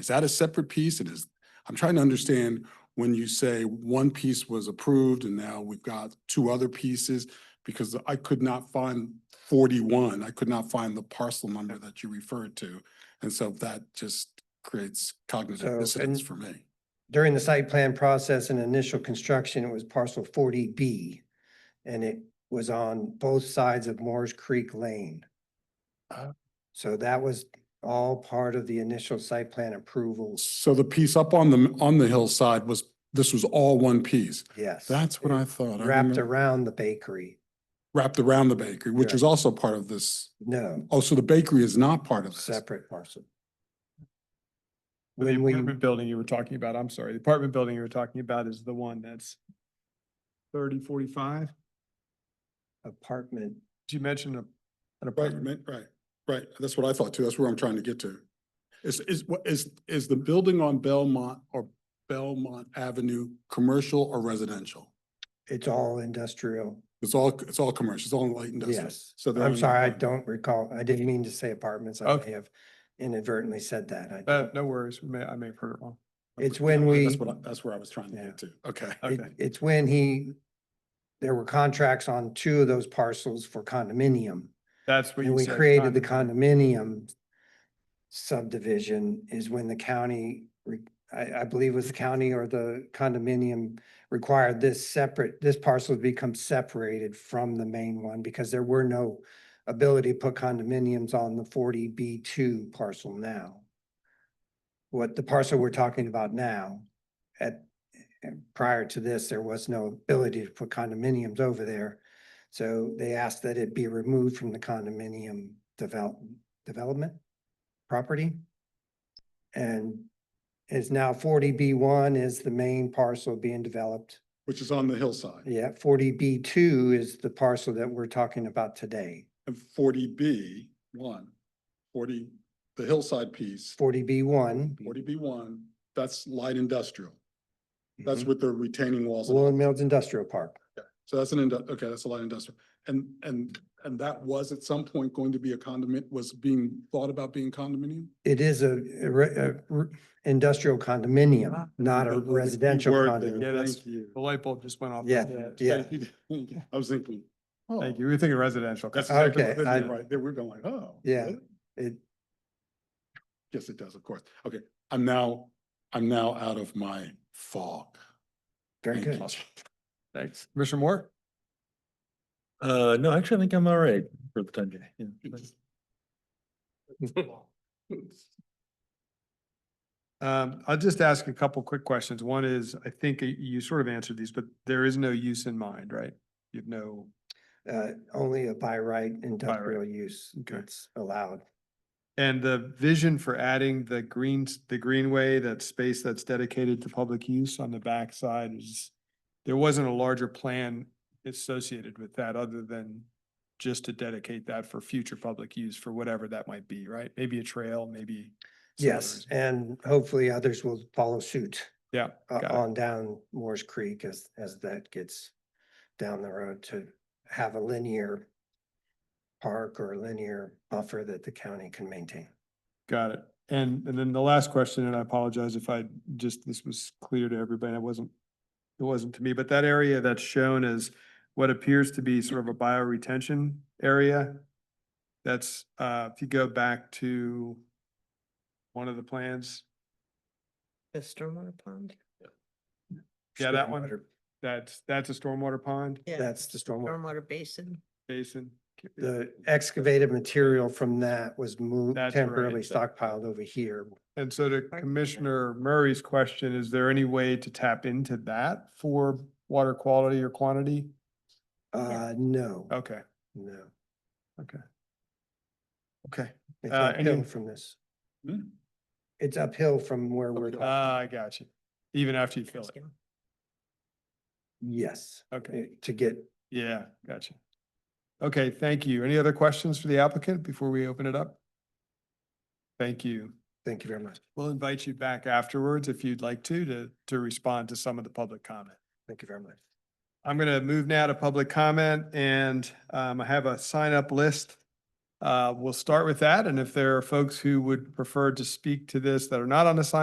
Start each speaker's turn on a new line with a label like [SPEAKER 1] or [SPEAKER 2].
[SPEAKER 1] Is that a separate piece? It is, I'm trying to understand when you say one piece was approved and now we've got two other pieces, because I could not find forty-one. I could not find the parcel number that you referred to. And so that just creates
[SPEAKER 2] So,
[SPEAKER 1] cognitive dissonance
[SPEAKER 2] and-
[SPEAKER 1] for me.
[SPEAKER 2] During the site plan process and initial construction, it was parcel forty B. And it was on both sides of Moore's Creek Lane.
[SPEAKER 1] Ah.
[SPEAKER 2] So that was all part of the initial site plan approvals,
[SPEAKER 1] So the piece up on the, on the hillside was, this was all one piece.
[SPEAKER 2] yes.
[SPEAKER 1] That's what I thought. I
[SPEAKER 2] Wrapped
[SPEAKER 1] remember-
[SPEAKER 2] around the bakery,
[SPEAKER 1] Wrapped around the bakery, which is also part of this.
[SPEAKER 2] no,
[SPEAKER 1] Oh, so the bakery is not part of this.
[SPEAKER 2] separate parcel.
[SPEAKER 3] The
[SPEAKER 2] When we,
[SPEAKER 3] apartment building you were talking about, I'm sorry, the apartment building you were talking about is the one that's thirty, forty-five?
[SPEAKER 2] apartment,
[SPEAKER 3] Did you mention a- an
[SPEAKER 1] Right,
[SPEAKER 3] apartment?
[SPEAKER 1] man, right, right. That's what I thought too. That's where I'm trying to get to. Is, is, what is, is the building on Belmont or Belmont Avenue, commercial or residential?
[SPEAKER 2] it's all industrial,
[SPEAKER 1] It's all, it's all commercial, it's all light industrial.
[SPEAKER 2] yes.
[SPEAKER 1] So they're
[SPEAKER 2] I'm
[SPEAKER 1] in-
[SPEAKER 2] sorry, I don't recall, I didn't mean to say apartments, I may
[SPEAKER 3] Okay.
[SPEAKER 2] have inadvertently said that. I
[SPEAKER 3] Uh,
[SPEAKER 2] don't-
[SPEAKER 3] no worries, we may, I may have heard it wrong.
[SPEAKER 2] It's when we.
[SPEAKER 1] That's what, I- that's where I was trying to
[SPEAKER 2] Yeah.
[SPEAKER 1] get to. Okay.
[SPEAKER 2] It,
[SPEAKER 3] Okay.
[SPEAKER 2] it's when he, there were contracts on two of those parcels for condominium.
[SPEAKER 3] That's
[SPEAKER 2] And
[SPEAKER 3] what you
[SPEAKER 2] we
[SPEAKER 3] said.
[SPEAKER 2] created the condominium
[SPEAKER 3] condominium.
[SPEAKER 2] subdivision is when the county, re- I, I believe it was the county or the condominium required this separate, this parcel to become separated from the main one because there were no ability to put condominiums on the forty B two parcel now. What the parcel we're talking about now, at, prior to this, there was no ability to put condominiums over there. So they asked that it be removed from the condominium develop, development property. And is now forty B one is the main parcel being developed.
[SPEAKER 1] Which is on the hillside.
[SPEAKER 2] Yeah, forty B two is the parcel that we're talking about today.
[SPEAKER 1] And forty B, one, forty, the hillside piece,
[SPEAKER 2] Forty B one.
[SPEAKER 1] forty B one, that's light industrial.
[SPEAKER 2] Mm-hmm.
[SPEAKER 1] That's with the retaining walls. and all
[SPEAKER 2] Lowland Mills Industrial Park.
[SPEAKER 1] So that's an, indu- okay, that's a light industrial. And, and, and that was at some point going to be a condominium, was being thought about being condominium?
[SPEAKER 2] It is a, a re- a re- industrial condominium, not a
[SPEAKER 1] That was the key
[SPEAKER 2] residential
[SPEAKER 1] word there.
[SPEAKER 2] condominium.
[SPEAKER 3] Yeah, that's-
[SPEAKER 1] Thank you.
[SPEAKER 3] The light bulb just went off.
[SPEAKER 2] Yeah, yeah.
[SPEAKER 1] Thank you. I was thinking. oh,
[SPEAKER 3] Thank you, we were thinking residential.
[SPEAKER 1] That's
[SPEAKER 3] condominium.
[SPEAKER 1] exactly,
[SPEAKER 2] Okay,
[SPEAKER 1] what I
[SPEAKER 2] I-
[SPEAKER 1] did, right, there we're going like, oh.
[SPEAKER 2] Yeah.
[SPEAKER 1] really?
[SPEAKER 2] It,
[SPEAKER 1] Yes, it does, of course. Okay, I'm now, I'm now out of my fog.
[SPEAKER 2] very
[SPEAKER 1] Thank
[SPEAKER 2] good.
[SPEAKER 1] you.
[SPEAKER 3] Thanks. Commissioner Moore?
[SPEAKER 4] Uh, no, actually, I think I'm all right for the time being. yeah.
[SPEAKER 3] Um, I'll just ask a couple quick questions. One is, I think y- you sort of answered these, but there is no use in mind, right? You have no,
[SPEAKER 2] Uh, only a by right industrial use
[SPEAKER 3] Okay.
[SPEAKER 2] that's allowed.
[SPEAKER 3] and the vision for adding the greens, the greenway, that space that's dedicated to public use on the backside is, there wasn't a larger plan associated with that other than just to dedicate that for future public use for whatever that might be, right? Maybe a trail, maybe. some other
[SPEAKER 2] Yes,
[SPEAKER 3] reason.
[SPEAKER 2] and hopefully others will follow suit
[SPEAKER 3] Yeah.
[SPEAKER 2] uh,
[SPEAKER 3] got it.
[SPEAKER 2] on down Moore's Creek as, as that gets down the road to have a linear park or linear buffer that the county can maintain.
[SPEAKER 3] Got it. And, and then the last question, and I apologize if I just, this was clear to everybody, I wasn't, it wasn't to me, but that area that's shown as what appears to be sort of a bioretention area. That's, uh, if you go back to one of the plans,
[SPEAKER 5] The stormwater pond?
[SPEAKER 3] Yeah, that one.
[SPEAKER 2] Stormwater-
[SPEAKER 3] that's, that's a stormwater pond
[SPEAKER 5] Yeah,
[SPEAKER 2] That's the
[SPEAKER 3] Oh,
[SPEAKER 2] stormwater.
[SPEAKER 5] Stormwater basin.
[SPEAKER 3] basin.
[SPEAKER 2] The excavated material from that was moved
[SPEAKER 3] That's right.
[SPEAKER 2] temporarily stockpiled over here.
[SPEAKER 3] And so to
[SPEAKER 5] Pardon?
[SPEAKER 3] Commissioner Murray's question, is there any way to tap into that for water quality or quantity?
[SPEAKER 2] Uh, no,
[SPEAKER 3] Okay,
[SPEAKER 2] no.
[SPEAKER 3] okay.
[SPEAKER 2] It's
[SPEAKER 3] Uh, any-
[SPEAKER 2] uphill from this.
[SPEAKER 1] Hmm.
[SPEAKER 2] It's uphill from where we're,
[SPEAKER 1] Uphill.
[SPEAKER 3] Ah, I got you. Even after you fill it.
[SPEAKER 5] Asking.
[SPEAKER 2] yes,
[SPEAKER 3] Okay,
[SPEAKER 2] eh, to get
[SPEAKER 3] yeah, gotcha. Okay, thank you. Any other questions for the applicant before we open it up? Thank you.
[SPEAKER 2] Thank you very much.
[SPEAKER 3] We'll invite you back afterwards if you'd like to, to, to respond to some of the public comment.
[SPEAKER 2] Thank you very much.
[SPEAKER 3] I'm going to move now to public comment and um, I have a sign up list Uh, we'll start with that. And if there are folks who would prefer to speak to this that are not on the sign